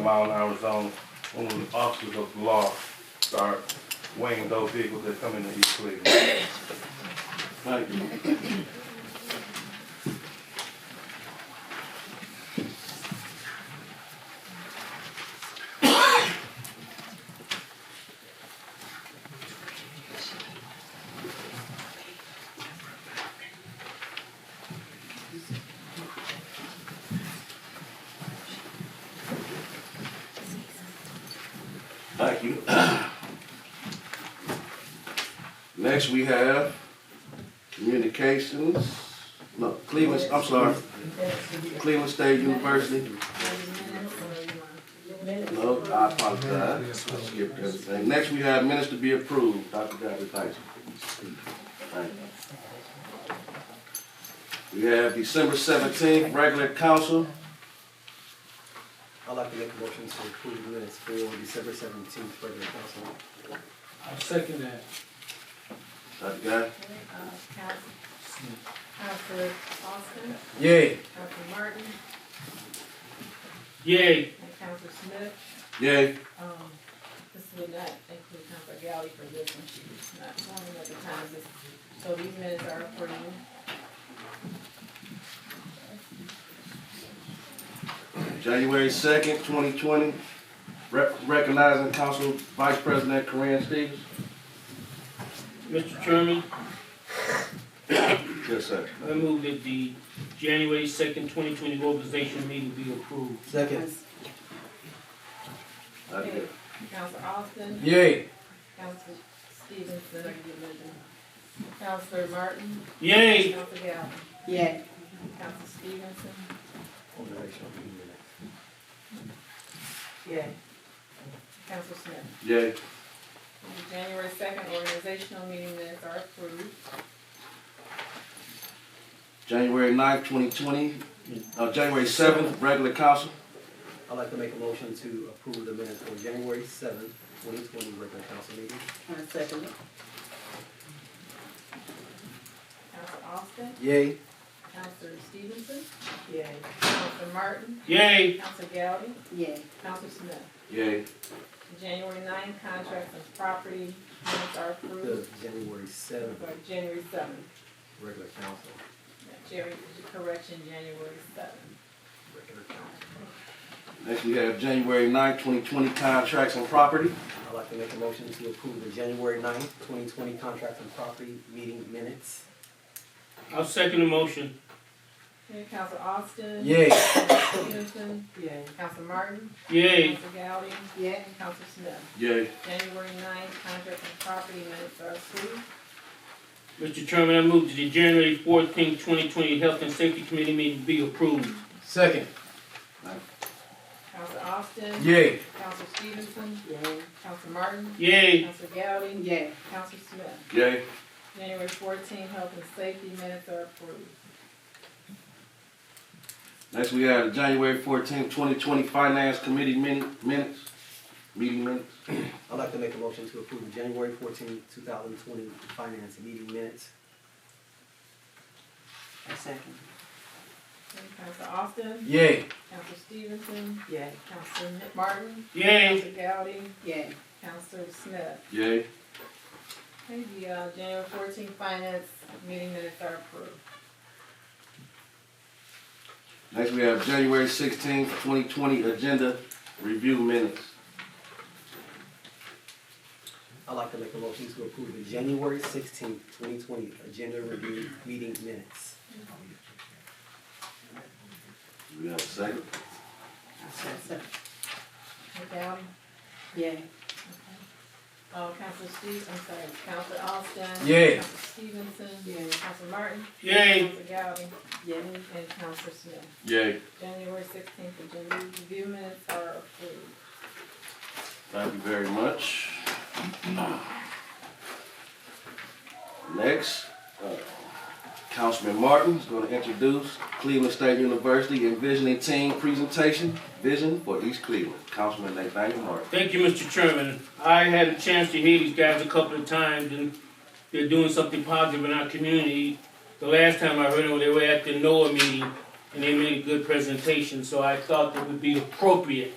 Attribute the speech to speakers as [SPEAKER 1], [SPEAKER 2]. [SPEAKER 1] mile an hour zone when the officers of the law start weighing those vehicles that come into East Cleveland.
[SPEAKER 2] Thank you. Thank you. Next, we have Communications, no, Cleveland, I'm sorry, Cleveland State University. No, I apologize, I skipped everything. Next, we have minutes to be approved, Dr. David Tyson. Thank you. We have December seventeenth, regular council.
[SPEAKER 3] I'd like to make a motion to approve the minutes for December seventeenth, regular council.
[SPEAKER 4] I second that.
[SPEAKER 2] Dr. Guy?
[SPEAKER 5] Councilor Austin,
[SPEAKER 2] Yay.
[SPEAKER 5] Councilor Martin,
[SPEAKER 4] Yay.
[SPEAKER 5] and Councilor Smith.
[SPEAKER 2] Yay.
[SPEAKER 5] Um, this would not include Councilor Galley for this one, she was not sworn in at the time, this, so these minutes are for you.
[SPEAKER 2] January second, twenty twenty, recognizing Council Vice President Corinne Stevens.
[SPEAKER 4] Mr. Chairman,
[SPEAKER 2] Yes, sir.
[SPEAKER 4] I move that the January second, twenty twenty organization meeting be approved.
[SPEAKER 3] Second.
[SPEAKER 2] Dr. Guy?
[SPEAKER 5] Councilor Austin,
[SPEAKER 2] Yay.
[SPEAKER 5] Councilor Stevenson, are you living? Councilor Martin,
[SPEAKER 4] Yay.
[SPEAKER 5] Councilor Galley,
[SPEAKER 6] Yeah,
[SPEAKER 5] Councilor Stevenson,
[SPEAKER 6] yeah.
[SPEAKER 5] Councilor Smith.
[SPEAKER 2] Yay.
[SPEAKER 5] The January second organizational meeting minutes are approved.
[SPEAKER 2] January 9th, twenty twenty, uh, January seventh, regular council.
[SPEAKER 3] I'd like to make a motion to approve the minutes for January seventh, twenty twenty, regular council meeting.
[SPEAKER 6] I second it.
[SPEAKER 5] Councilor Austin,
[SPEAKER 3] Yay.
[SPEAKER 5] Councilor Stevenson,
[SPEAKER 6] Yeah,
[SPEAKER 5] Councilor Martin,
[SPEAKER 4] Yay.
[SPEAKER 5] Councilor Gowdy,
[SPEAKER 6] yeah.
[SPEAKER 5] Councilor Smith.
[SPEAKER 2] Yay.
[SPEAKER 5] The January 9 contracts and property minutes are
[SPEAKER 3] The
[SPEAKER 5] approved
[SPEAKER 3] January seventh,
[SPEAKER 5] for January seventh.
[SPEAKER 3] regular council,
[SPEAKER 5] Jerry, correction, January seventh.
[SPEAKER 3] regular council.
[SPEAKER 2] Next, we have January 9th, twenty twenty, contracts and property.
[SPEAKER 3] I'd like to make a motion to approve the January ninth, twenty twenty, contract and property meeting minutes.
[SPEAKER 4] I second the motion.
[SPEAKER 5] Mayor Council Austin.
[SPEAKER 2] Yay.
[SPEAKER 5] Council Stevenson,
[SPEAKER 6] Yeah.
[SPEAKER 5] Council Martin.
[SPEAKER 4] Yay.
[SPEAKER 5] Council Gowdy,
[SPEAKER 6] Yeah,
[SPEAKER 5] and Council Smith.
[SPEAKER 2] Yay.
[SPEAKER 5] January 9 contracts and property minutes are approved.
[SPEAKER 4] Mr. Chairman, I move that the January fourteenth, twenty twenty Health and Safety Committee meeting be approved.
[SPEAKER 2] Second.
[SPEAKER 5] Council Austin.
[SPEAKER 2] Yay.
[SPEAKER 5] Council Stevenson,
[SPEAKER 6] yeah,
[SPEAKER 5] Council Martin.
[SPEAKER 4] Yay.
[SPEAKER 5] Council Gowdy,
[SPEAKER 6] yeah.
[SPEAKER 5] Council Smith.
[SPEAKER 2] Yay.
[SPEAKER 5] January 14 health and safety minutes are approved.
[SPEAKER 2] Next, we have January fourteenth, twenty twenty, finance committee min- minutes, meeting minutes.
[SPEAKER 3] I'd like to make a motion to approve the January fourteenth, two thousand twenty, finance meeting minutes.
[SPEAKER 6] I second
[SPEAKER 5] Council Austin,
[SPEAKER 2] Yay.
[SPEAKER 5] Council Stevenson,
[SPEAKER 6] it. Yeah,
[SPEAKER 5] Counselor Martin,
[SPEAKER 4] Yay.
[SPEAKER 5] Counselor Gowdy,
[SPEAKER 6] yeah,
[SPEAKER 5] Counselor Smith.
[SPEAKER 2] Yay.
[SPEAKER 5] Okay, the uh, January fourteenth finance meeting minutes are approved.
[SPEAKER 2] Next, we have January sixteenth, twenty twenty, agenda review minutes.
[SPEAKER 3] I'd like to make a motion to approve the January sixteenth, twenty twenty agenda review meeting minutes.
[SPEAKER 2] Do we have a second?
[SPEAKER 6] I second it.
[SPEAKER 5] Counselor Gowdy,
[SPEAKER 6] Yeah,
[SPEAKER 5] uh, Counselor Steve, I'm sorry, Counselor Austin.
[SPEAKER 2] Yeah.
[SPEAKER 5] Counselor Stevenson.
[SPEAKER 6] Yeah.
[SPEAKER 5] Counselor Martin.
[SPEAKER 4] Yay.
[SPEAKER 5] Counselor Gowdy,
[SPEAKER 6] yeah,
[SPEAKER 5] and Counselor Smith.
[SPEAKER 2] Yay.
[SPEAKER 5] January sixteenth agenda review minutes are approved.
[SPEAKER 2] Thank you very much. Next, uh, Councilman Martin is going to introduce Cleveland State University Envisioning Team Presentation, Vision for East Cleveland. Councilman Nathaniel Martin.
[SPEAKER 4] Thank you, Mr. Chairman. I had a chance to hear these guys a couple of times, and they're doing something positive in our community. The last time I heard them, they were at the NOAA meeting, and they made a good presentation, so I thought it would be appropriate